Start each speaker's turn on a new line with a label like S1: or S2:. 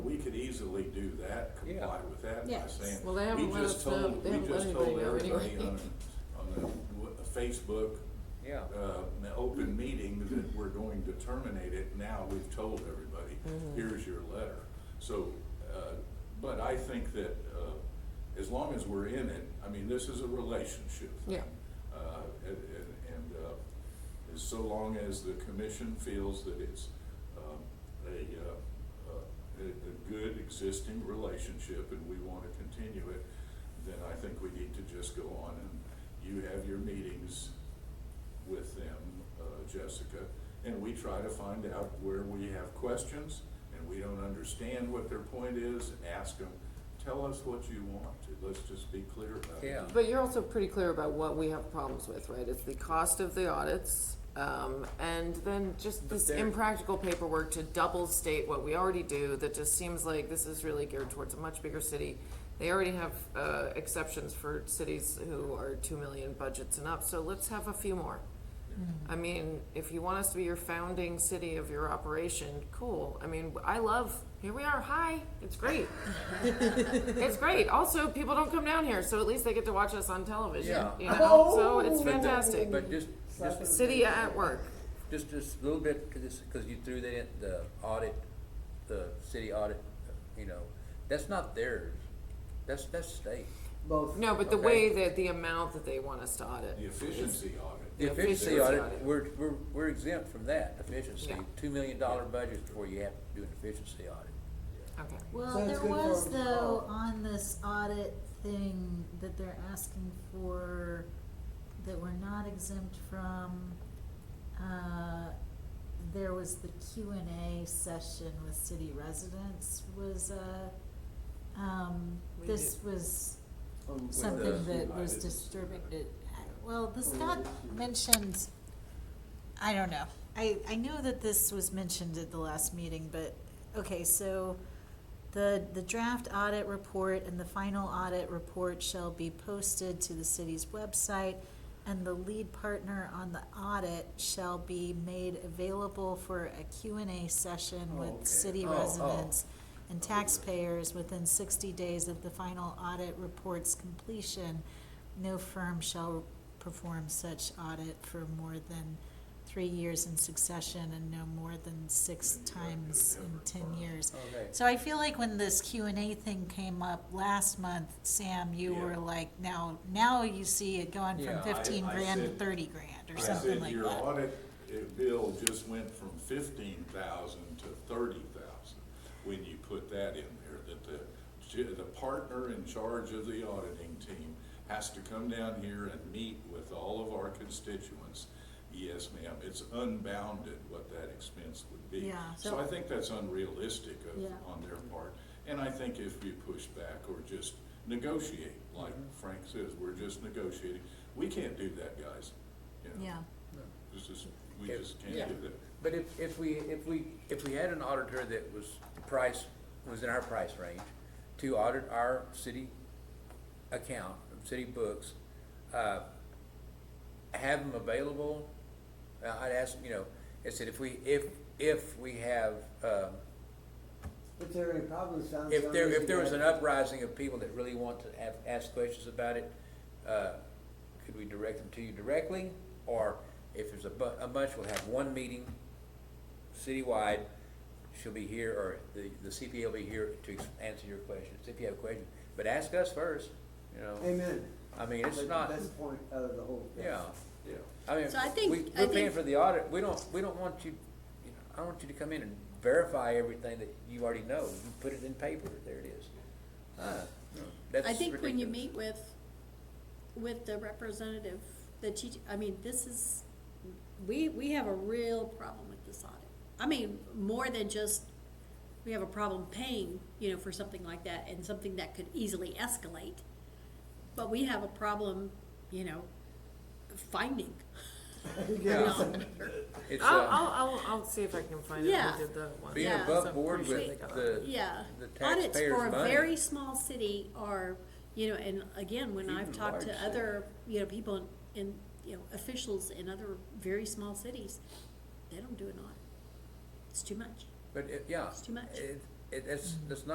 S1: easily do that, comply with that by
S2: Yes.
S1: saying.
S3: Well, they haven't
S1: we
S3: let
S1: just
S3: us know-
S1: told-
S3: they haven't let anybody know
S1: We just told everybody
S3: anyway.
S1: on, a- on the w- Facebook,
S2: Yeah.
S1: uh, in the open meeting that we're going to terminate it. Now we've told everybody,
S3: Mm-hmm.
S1: here's your letter. So, uh, but I think that, uh, as long as we're in it, I mean, this is a relationship thing.
S3: Yeah.
S1: Uh, and, and- and, uh, as so long as the commission feels that it's, um, a, uh, uh, a, a good existing relationship and we wanna continue it, then I think we need to just go on and you have your meetings with them, uh, Jessica, and we try to find out where we have questions and we don't understand what their point is, ask them, tell us what you want, let's just be clear about it.
S2: Yeah.
S3: But you're also pretty clear about what we have problems with, right? It's the cost of the audits, um, and then just this
S2: there-
S3: impractical paperwork to double state what we already do, that just seems like this is really geared towards a much bigger city. They already have, uh, exceptions for cities who are two million budgets and up, so let's have a few more. I mean, if you want us to be your founding city of your operation, cool. I mean, I love, here we are, hi, it's great. It's great. Also, people don't come down here, so at least they get to watch us on television.
S2: Yeah. Oh!
S3: You know, so it's
S2: But the-
S3: fantastic.
S2: But just, just,
S3: City at work.
S2: just, just a little bit, because you threw that in, the audit, the city audit, you know, that's not theirs. That's, that's state.
S4: Both.
S3: No, but the
S2: Okay.
S3: way that the amount that they want us to audit.
S1: The efficiency audit.
S2: The
S3: The
S2: efficiency
S3: efficiency
S2: audit,
S3: audit.
S2: we're, we're, we're exempt from that efficiency.
S3: Yeah.
S2: Two million dollar budget before you have to do an efficiency audit.
S3: Okay.
S4: So
S5: Well,
S4: it's
S5: there
S4: good for
S5: was
S4: them to
S5: though
S4: call.
S5: on this audit thing that they're asking for, that we're not exempt from, uh, there was the Q and A session with city residents was, uh, um,
S3: We
S5: this
S3: did-
S5: was
S4: Um, with
S5: something
S1: the-
S5: that
S1: I
S5: was
S1: didn't see
S5: disturbing,
S1: that.
S5: it, well, this
S4: Oh,
S5: got
S4: yeah, yeah.
S5: mentioned, I don't know. I, I know that this was mentioned at the last meeting, but, okay, so the, the draft audit report and the final audit report shall be posted to the city's website, and the lead partner on the audit shall be made available for a Q and A session
S4: Oh,
S5: with
S4: okay.
S5: city
S2: Oh, oh.
S5: residents and taxpayers within sixty days of the final audit report's completion. No firm shall perform such audit for more than three years in succession and no more than six
S1: Then you have to
S5: times
S1: have
S5: in
S1: a
S5: ten
S1: firm.
S5: years.
S2: Okay.
S5: So I feel like when this Q and A thing came up last month, Sam, you
S1: Yeah.
S5: were like, now, now you see it going
S2: Yeah,
S5: from
S2: I-
S5: fifteen
S1: I
S5: grand to
S1: said-
S5: thirty grand or
S1: I
S5: something
S1: said
S5: like that.
S1: your audit uh, bill just went from fifteen thousand to thirty thousand when you put that in there, that the, ch- the partner in charge of the auditing team has to come down here and meet with all of our constituents. Yes, ma'am, it's unbounded what that expense would be.
S5: Yeah.
S1: So
S5: So-
S1: I think that's unrealistic of,
S5: Yeah.
S1: on their part. And I think if we push back or just negotiate, like Frank says, we're just negotiating, we can't do that, guys. you know.
S5: Yeah.
S1: This is, we
S2: Yeah.
S1: just can't
S2: Yeah.
S1: do that.
S2: But if, if we, if we, if we had an auditor that was, the price, was in our price range, to audit our city account, city books, uh, have them available, uh, I'd ask, you know, I said, if we, if, if we have, um,
S4: If there are any problems found.
S2: if there, if there was an
S4: somebody-
S2: uprising of people that really want to have, ask questions about it, uh, could we direct them to you directly? Or if there's a bu- a bunch, we'll have one meeting citywide, she'll be here, or the, the CPA will be here to ex- answer your questions, if you have questions. But ask us first, you know,
S4: Amen.
S2: I mean, it's
S4: That's
S2: not,
S4: The best point of the whole. thing.
S2: yeah,
S1: Yeah.
S2: I mean,
S6: So I
S2: we,
S6: think- I
S2: we're paying
S6: think-
S2: for the audit, we don't, we don't want you, you know, I don't want you to come in and verify everything that you already know, you put it in paper, there it is. Uh, That's
S6: I think when you
S2: ridiculous.
S6: meet with, with the representative, the teach, I mean, this is, we, we have a real problem with this audit. I mean, more than just, we have a problem paying, you know, for something like that and something that could easily escalate. But we have a problem, you know, finding.
S4: Yeah.
S2: It's,
S3: I'll,
S2: uh,
S3: I'll, I'll, I'll see if I can find out
S6: Yeah.
S3: who did the one.
S2: being
S6: Yeah.
S2: above
S3: So I'm
S2: board
S3: pretty sure they
S2: with
S3: got
S2: the,
S3: it.
S6: Yeah.
S2: the
S6: Audits for
S2: taxpayers'
S6: a
S2: money.
S6: very small city are, you know, and again, when I've
S2: Even large
S6: talked to other, you know, people in- in, you know, officials in other very small cities, they don't do an audit. It's too much.
S2: But, it- yeah.
S6: It's too much.
S2: It, it, it's, it's not